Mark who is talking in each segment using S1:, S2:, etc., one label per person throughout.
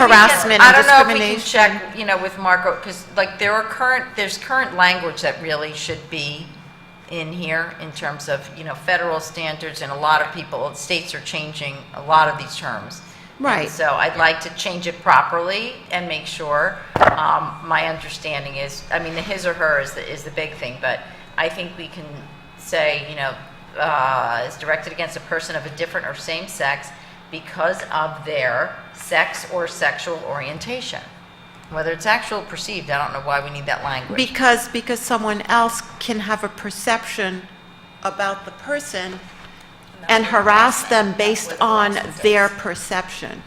S1: harassment
S2: I
S1: and
S2: don't know if we can
S1: discrimination.
S2: check, you know, with Marco, because like there are current, there's current language that really should be in here in terms of, you know, federal standards and a lot of people, states are changing a lot of these terms.
S1: Right.
S2: So I'd like to change it properly and make sure. Um, My understanding is, I mean, the his or her is the, is the big thing, but I think we can say, you know, uh, is directed against a person of a different or same sex because of their sex or sexual orientation. Whether it's actual or perceived, I don't know why we need that language.
S1: Because, because someone else can have a perception about the person and harass them based on their perception.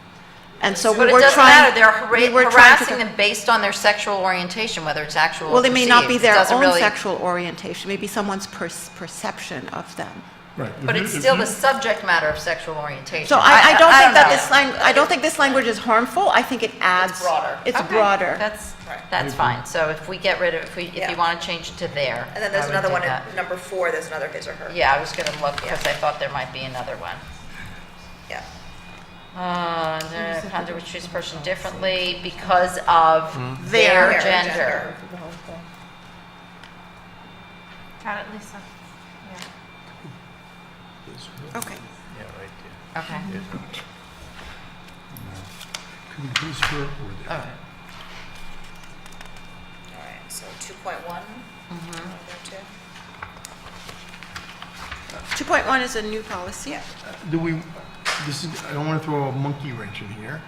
S1: And so we
S2: But it
S1: were
S2: doesn't matter,
S1: trying.
S2: they're
S1: we were
S2: hara-
S1: trying to
S2: harassing
S1: go-
S2: them based on their sexual orientation, whether it's actual or
S1: Well, it
S2: perceived.
S1: may not be
S2: It
S1: their
S2: doesn't
S1: own
S2: really-
S1: sexual orientation, maybe someone's per- perception of them.
S3: Right.
S2: But it's still the subject matter of sexual orientation.
S1: So I, I don't think that
S2: know.
S1: this lang, I don't think this language is harmful, I think it adds.
S4: broader.
S1: It's
S2: Okay,
S1: broader.
S2: That's, that's fine. So if we get rid of, if we, if
S4: Yeah.
S2: you want to change it to there.
S4: And then there's
S2: I would
S4: another
S2: do
S4: one,
S2: that.
S4: at number four, there's another his or her.
S2: Yeah, I was going to look because I thought there might be another one.
S4: Yeah.
S2: Uh, the conduct which treats a person differently because of their
S4: Their
S2: gender.
S5: Got it, Lisa.
S1: Okay.
S6: Yeah, right
S2: Okay.
S6: there. There's a-
S3: Could we do this here or there?
S4: All right, so 2.1.
S2: Mm-hmm.
S4: wanna go to?
S1: 2.1 is a new policy.
S3: Uh, Do we, this is, I don't want to throw a monkey wrench in here,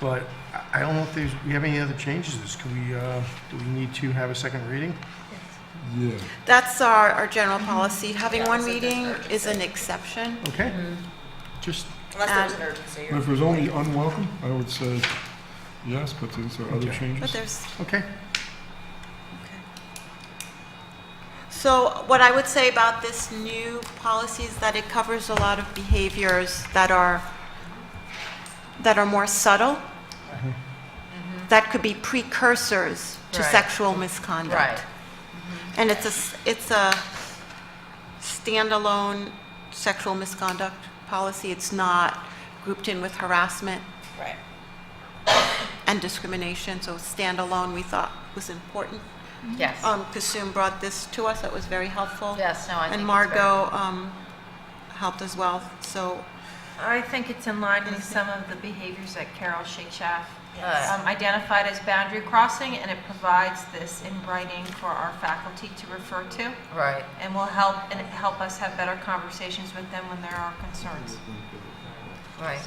S3: but I- I don't know if there's, we have any other changes to this. Could we, uh, do we need to have a second reading?
S7: Yeah,
S1: That's our, our general policy. Having one
S4: so there's
S1: meeting is an exception.
S3: Okay?
S1: Mm-hmm.
S3: Just,
S4: Unless there's
S2: Um,
S4: an urgency.
S7: but if it was only unwelcome, I would say yes, but since there are other
S1: But
S3: Okay.
S7: changes.
S1: there's,
S3: okay.
S1: so what I would say about this new policy is that it covers a lot of behaviors that are, that are more subtle, that could be precursors to
S2: Mm-hmm. Right.
S1: sexual misconduct.
S2: Right.
S1: And it's a, s- it's a standalone sexual misconduct policy. It's not grouped in with harassment
S4: Right.
S1: and discrimination, so standalone we thought was important.
S2: Yes.
S1: Um, Kasum brought this to us, that was very helpful.
S2: Yes, no, I think
S1: And
S2: it's
S1: Margot, um, helped as well, so,
S5: I think it's in line with some of the behaviors that Carol Shakeshaf
S2: Yes.
S5: um, identified as boundary crossing, and it provides this in writing for our faculty to refer to,
S2: Right.
S5: and will help, and help us have better conversations with them when there are concerns.
S2: Right.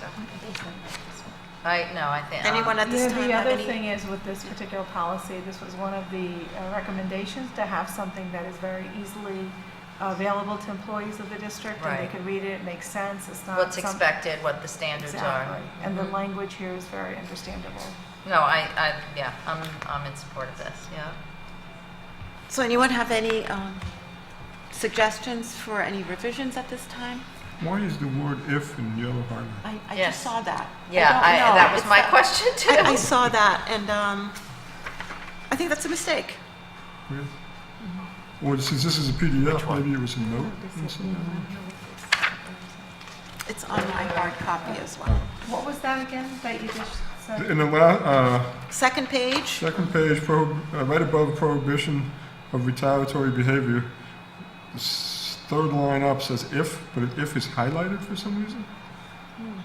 S2: I, no, I think. um,
S1: anyone at
S8: Yeah,
S1: this time have
S8: The other
S1: any?
S8: thing is with this particular policy, this was one of the uh, recommendations to have something that is very easily available to employees of the district. And
S2: Right.
S8: they could read it, it makes sense, it's not.
S2: What's
S8: some-
S2: expected, what the standards are.
S8: Exactly. And the
S1: Mm-hmm.
S8: language here is very understandable.
S2: No, I, I, yeah, I'm, I'm in support of this, yeah.
S1: So anyone have any, um, suggestions for any revisions at this time?
S7: Why is the word if in yellow highlighted?
S1: I, I
S2: Yes.
S1: just saw that.
S2: Yeah,
S1: don't
S2: I,
S1: know.
S2: that was
S1: It's
S2: my question too.
S1: I, I saw that, and, um, I think that's a mistake.
S7: Really? Or since this is a PDF, maybe it was a note or something?
S1: It's on my hard copy as well.
S8: What was that again, that you just said?
S7: In the la, uh,
S1: Second page,
S7: Second page, prohib- uh, right above prohibition of retaliatory behavior. This third line up says if, but if is highlighted for some reason.
S1: Hmm.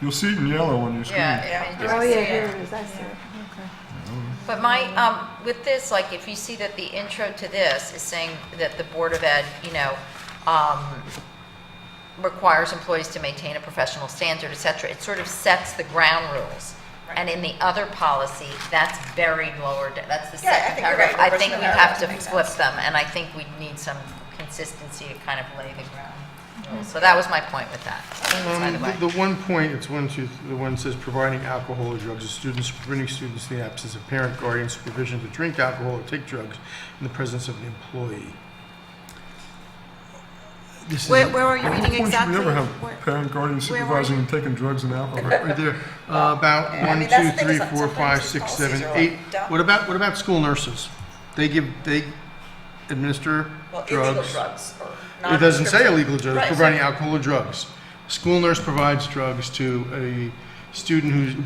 S7: You'll see it in yellow on your screen.
S2: Yeah, I mean,
S4: Oh,
S2: just-
S8: it is, I see. Okay.
S2: But my, um, with this, like, if you see that the intro to this is saying that the Board of Ed, you know, um, requires employees to maintain a professional standard, et cetera, it sort of sets the ground rules. And in the other policy, that's buried lower, d- that's the
S4: Yeah, I
S2: second
S4: think you're
S2: paragraph.
S4: right.
S2: I
S4: The
S2: think
S4: rest of
S2: we
S4: the
S2: have
S4: paragraphs
S2: to
S4: make
S2: flip
S4: sense.
S2: them, and I think we need some consistency to kind of lay the ground
S4: Mm-hmm.
S2: rules. So that was my point with that, by the
S3: Um,
S2: way.
S3: The the one point, it's one, two, the one says providing alcohol or drugs to students, preventing students in the absence of parent, guardian supervision to drink alcohol or take drugs in the presence of an employee. This is,
S1: where, where are you
S7: At what
S1: reading
S7: point should
S1: exactly?
S7: we ever
S1: Where-
S7: have parent guardian
S1: where were
S7: supervising and taking drugs and alcohol?
S3: right there, uh, about
S4: I
S3: one,
S4: mean, that's
S3: two,
S4: the thing,
S3: three,
S4: some-
S3: four, five,
S4: sometimes
S3: six,
S4: these
S3: seven,
S4: policies are
S3: eight.
S4: like dumb.
S3: What about, what about school nurses? They give, they administer
S4: Well, illegal
S3: drugs.
S4: drugs or
S3: It doesn't say
S4: non-prescription.
S3: illegal drugs,
S4: Right, so-
S3: providing alcohol or drugs. School nurse provides drugs to a student who's,